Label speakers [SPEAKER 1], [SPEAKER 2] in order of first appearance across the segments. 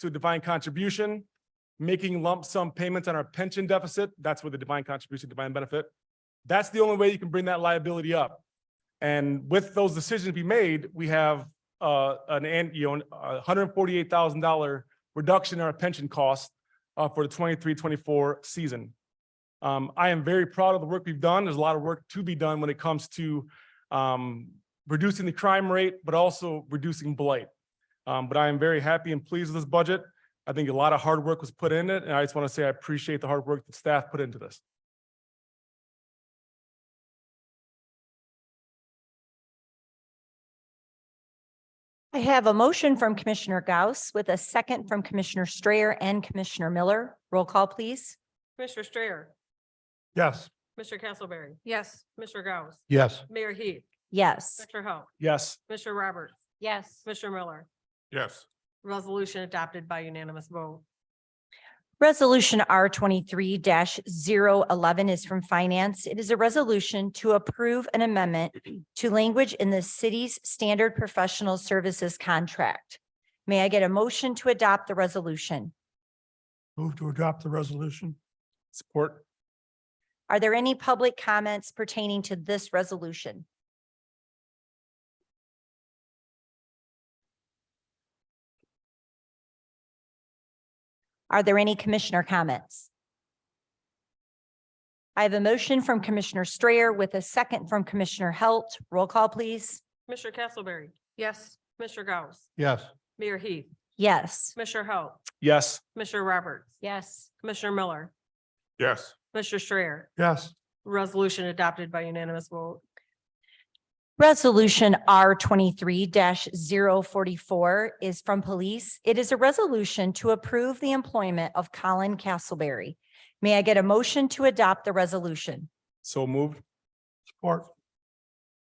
[SPEAKER 1] to divine contribution, making lump sum payments on our pension deficit. That's where the divine contribution, divine benefit. That's the only way you can bring that liability up. And with those decisions be made, we have uh, an, an- you know, a hundred and forty-eight thousand dollar reduction in our pension cost uh, for the 23-24 season. Um, I am very proud of the work we've done. There's a lot of work to be done when it comes to um, reducing the crime rate, but also reducing blight. Um, but I am very happy and pleased with this budget. I think a lot of hard work was put in it, and I just want to say I appreciate the hard work that staff put into this.
[SPEAKER 2] I have a motion from Commissioner Gauss with a second from Commissioner Strayer and Commissioner Miller. Roll call, please.
[SPEAKER 3] Commissioner Strayer,
[SPEAKER 1] Yes.
[SPEAKER 3] Mr. Castleberry. Yes. Mr. Gauss,
[SPEAKER 4] Yes.
[SPEAKER 3] Mayor Heath,
[SPEAKER 2] Yes.
[SPEAKER 3] Mr. Hope,
[SPEAKER 1] Yes.
[SPEAKER 3] Mr. Roberts,
[SPEAKER 5] yes,
[SPEAKER 3] Mr. Miller.
[SPEAKER 4] Yes.
[SPEAKER 3] Resolution adopted by unanimous vote.
[SPEAKER 2] Resolution R twenty-three 11 is from Finance. It is a resolution to approve an amendment to language in the city's standard professional services contract. May I get a motion to adopt the resolution?
[SPEAKER 4] Move to adopt the resolution?
[SPEAKER 1] Support.
[SPEAKER 2] Are there any public comments pertaining to this resolution? Are there any commissioner comments? I have a motion from Commissioner Strayer with a second from Commissioner Halt. Roll call, please.
[SPEAKER 3] Mr. Castleberry. Yes. Mr. Gauss,
[SPEAKER 4] Yes.
[SPEAKER 3] Mayor Heath,
[SPEAKER 2] Yes.
[SPEAKER 3] Mr. Hope,
[SPEAKER 1] Yes.
[SPEAKER 3] Mr. Roberts,
[SPEAKER 5] yes,
[SPEAKER 3] Commissioner Miller,
[SPEAKER 4] Yes.
[SPEAKER 3] Mr. Strayer.
[SPEAKER 4] Yes.
[SPEAKER 3] Resolution adopted by unanimous vote.
[SPEAKER 2] Resolution R twenty-three 44 is from Police. It is a resolution to approve the employment of Colin Castleberry. May I get a motion to adopt the resolution?
[SPEAKER 1] So moved.
[SPEAKER 4] Support?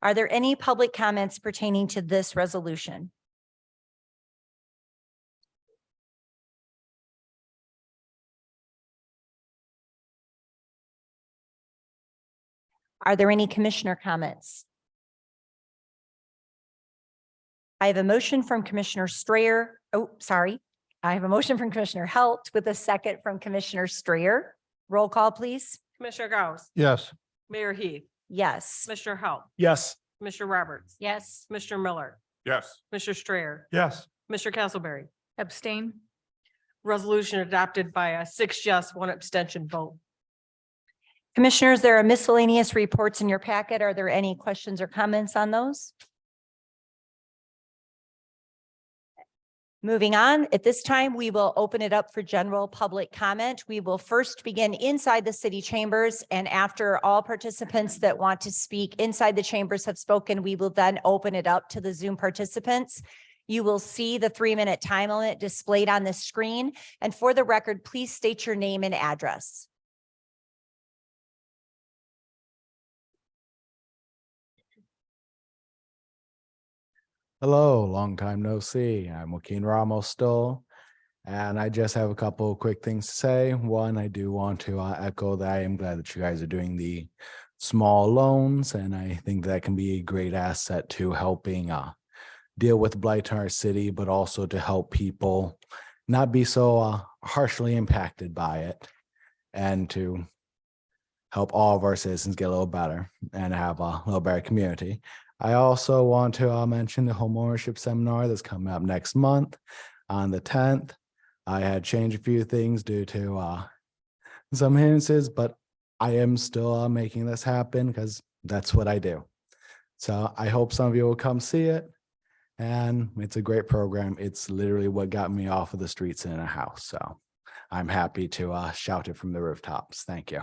[SPEAKER 2] Are there any public comments pertaining to this resolution? Are there any commissioner comments? I have a motion from Commissioner Strayer. Oh, sorry. I have a motion from Commissioner Halt with a second from Commissioner Strayer. Roll call, please.
[SPEAKER 3] Commissioner Gauss,
[SPEAKER 4] Yes.
[SPEAKER 3] Mayor Heath,
[SPEAKER 2] Yes.
[SPEAKER 3] Mr. Hope,
[SPEAKER 1] Yes.
[SPEAKER 3] Mr. Roberts,
[SPEAKER 5] yes.
[SPEAKER 3] Mr. Miller,
[SPEAKER 4] Yes.
[SPEAKER 3] Mr. Strayer,
[SPEAKER 4] Yes.
[SPEAKER 3] Mr. Castleberry.
[SPEAKER 5] Abstain?
[SPEAKER 3] Resolution adopted by a six yes, one abstention vote.
[SPEAKER 2] Commissioners, there are miscellaneous reports in your packet. Are there any questions or comments on those? Moving on, at this time, we will open it up for general public comment. We will first begin inside the city chambers and after all participants that want to speak inside the chambers have spoken, we will then open it up to the Zoom participants. You will see the three-minute time limit displayed on the screen. And for the record, please state your name and address.
[SPEAKER 6] Hello, long time no see. I'm Joaquin Ramos still. And I just have a couple of quick things to say. One, I do want to uh, echo that I am glad that you guys are doing the small loans, and I think that can be a great asset to helping uh, deal with blight in our city, but also to help people not be so uh, harshly impacted by it and to help all of our citizens get a little better and have a little better community. I also want to uh, mention the homeownership seminar that's coming up next month on the tenth. I had changed a few things due to uh, some hindrances, but I am still uh, making this happen because that's what I do. So I hope some of you will come see it. And it's a great program. It's literally what got me off of the streets and in a house. So I'm happy to uh, shout it from the rooftops. Thank you.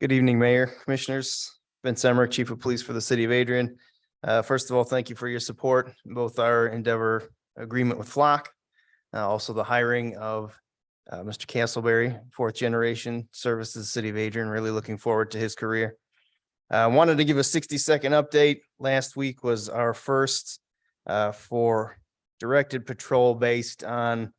[SPEAKER 7] Good evening, Mayor, Commissioners. Vince Emmer, Chief of Police for the City of Adrian. Uh, First of all, thank you for your support, in both our endeavor agreement with Flock, uh, also the hiring of uh, Mr. Castleberry, fourth generation service to the City of Adrian. Really looking forward to his career. I wanted to give a sixty-second update. Last week was our first uh, for directed patrol based on